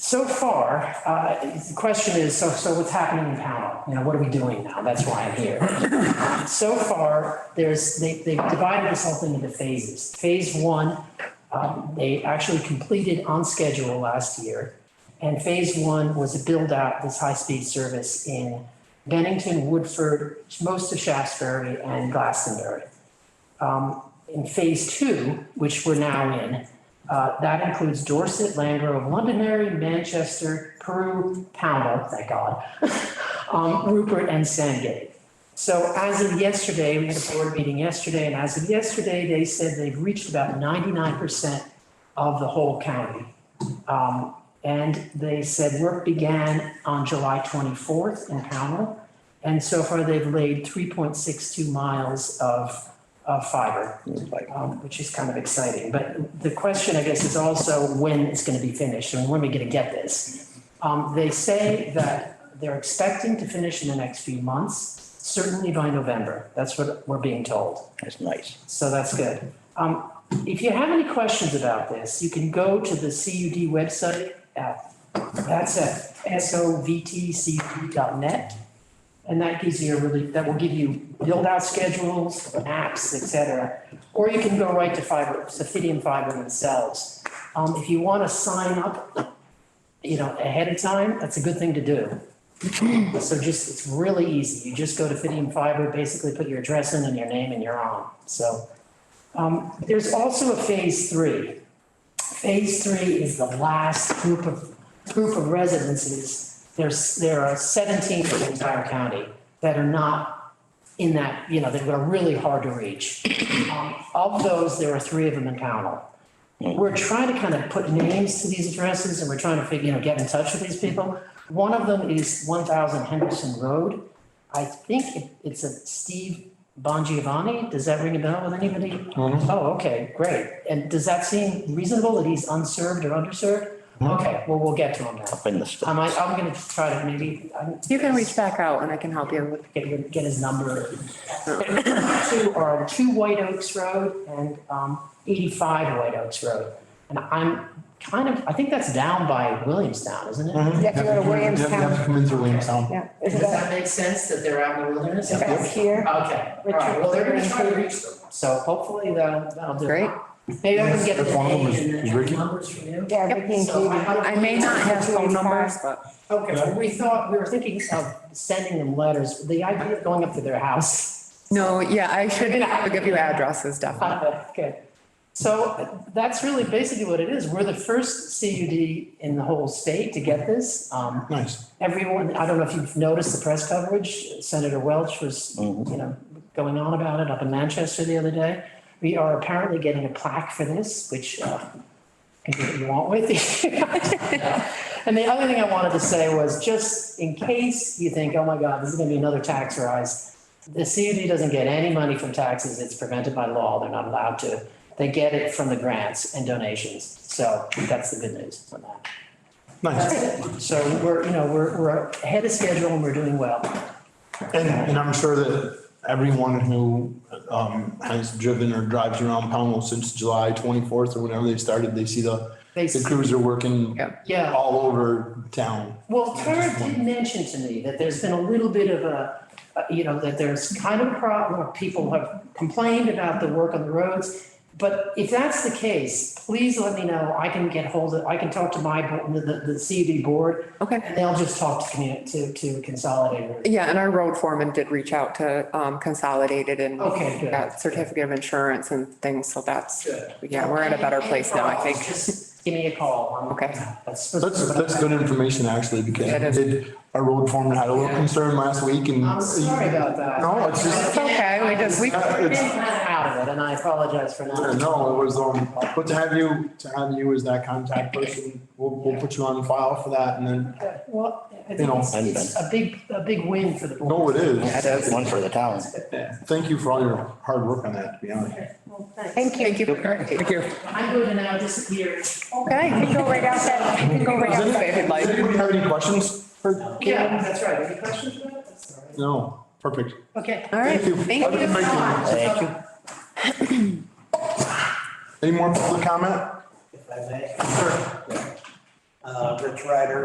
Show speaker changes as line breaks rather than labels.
So far, uh, the question is, so, so what's happening in panel? You know, what are we doing now? That's why I'm here. So far, there's, they, they've divided this up into phases. Phase one, um, they actually completed on schedule last year. And phase one was to build out this high-speed service in Bennington, Woodford, most of Shaftesbury and Glastonbury. Um, In phase two, which we're now in, uh, that includes Dorset, Langrove, Londonderry, Manchester, Peru, Pownell, thank God, um, Rupert, and Sandgate. So as of yesterday, we had a board meeting yesterday, and as of yesterday, they said they've reached about ninety-nine percent of the whole county. Um, and they said work began on July twenty-fourth in Pownell. And so far, they've laid three point six two miles of, of uh, fiber um, which is kind of exciting. But the question, I guess, is also when it's going to be finished and when we're going to get this. Um, They say that they're expecting to finish in the next few months, certainly by November. That's what we're being told.
That's nice.
So that's good. Um, if you have any questions about this, you can go to the CUD website at, that's at sovtcud.net. And that gives you a really, that will give you build out schedules, maps, et cetera. Or you can go right to fiber, Sophidium Fiber themselves. Um, if you want to sign up, you know, ahead of time, that's a good thing to do. So just, it's really easy. You just go to Fidium Fiber, basically put your address in and your name and you're on. So um, there's also a phase three. Phase three is the last group of, group of residences. There's, there are 17 in the entire county that are not in that, you know, that are really hard to reach. Um, Of those, there are three of them in Pownell. We're trying to kind of put names to these addresses and we're trying to figure, you know, get in touch with these people. One of them is one thousand Henderson Road. I think it- it's a Steve Bongiovanni. Does that ring a bell with anybody? Oh, okay, great. And does that seem reasonable that he's unserved or underserved? Okay, well, we'll get to him now.
Up in the stuff.
I'm, I'm gonna try to maybe, I'm,
You can reach back out and I can help you with.
get, get his number. Two are two White Oaks Road and um, eighty-five White Oaks Road. And I'm kind of, I think that's down by Williamstown, isn't it?
Mm-hmm.
You have to go
You
to
have to
Williamstown.
come in through Williamstown.
Yeah,
Does
is that,
that make sense that they're out in the wilderness? Okay,
that's here?
all right, well, they're gonna try to reach them, so hopefully that'll, that'll do. it.
Great.
Maybe I can get the
If one of them
name
is-
and
is
the
Ricky?
numbers from you.
Yeah, Vicky and
So
Katie.
hope-
I may not have phone numbers, but
Okay, well, we thought, we were thinking of sending them letters, the idea of going up to their house
no, yeah, I should I'll give you addresses definitely.
Okay. So that's really basically what it is. We're the first CUD in the whole state to get this. Um,
Nice.
Everyone, I don't know if you've noticed the press coverage, Senator Welch was,
Mm-hmm.
you know, going on about it up in Manchester the other day. We are apparently getting a plaque for this, which uh, can do what you want with. And the other thing I wanted to say was, just in case you think, oh my God, this is going to be another tax rise, the CUD doesn't get any money from taxes. It's prevented by law. They're not allowed to. They get it from the grants and donations. So that's the good news on that.
Nice.
So we're, you know, we're, we're ahead of schedule and we're doing well.
And, and I'm sure that everyone who um, has driven or drives around Pownell since July 24th or whenever they started, they see the,
They
the
see-
crews are working
Yeah.
Yeah.
all over town.
Well, Tara did mention to me that there's been a little bit of a, uh, you know, that there's kind of a problem, people have complained about the work on the roads. But if that's the case, please let me know, I can get hold of, I can talk to my, bo- the, the- the CUD board,
Okay.
and they'll just talk to, commu- to, to Consolidated.
Yeah, and our road foreman did reach out to um, Consolidated and
Okay, good.
got certificate of insurance and things, so that's,
Good.
yeah, we're in a better place now, I think.
Just Give me a call. I'm-
Okay.
That's.
That's, that's good information actually, because
That is.
we did, our road foreman had a little concern last week and.
I'm sorry about that.
No, it's just-
It's okay, we just- we-
I've been kinda out of it, and I apologize for
Yeah,
not.
No, it was, um, but to have you, to have you as that contact person, we'll, we'll put you on file for that and then,
Well, I
You
think
know,
it's it's a big, a big win for the board.
no, it is.
That is one for the town.
Thank you for all your hard work on that, to be honest.
Well, thanks.
Thank you.
Thank you. Thank you.
I'm going to now disappear.
Okay, you can go right out that, you can go right out
Does
that.
anybody, does anybody have any questions for
Yeah, that's right. Any questions about it? That's all right.
No, perfect.
Okay.
All right,
Thank you.
thank
Have a
you.
good night.
Thank you.
Any more public comment?
If I may.
uh, Rich Ryder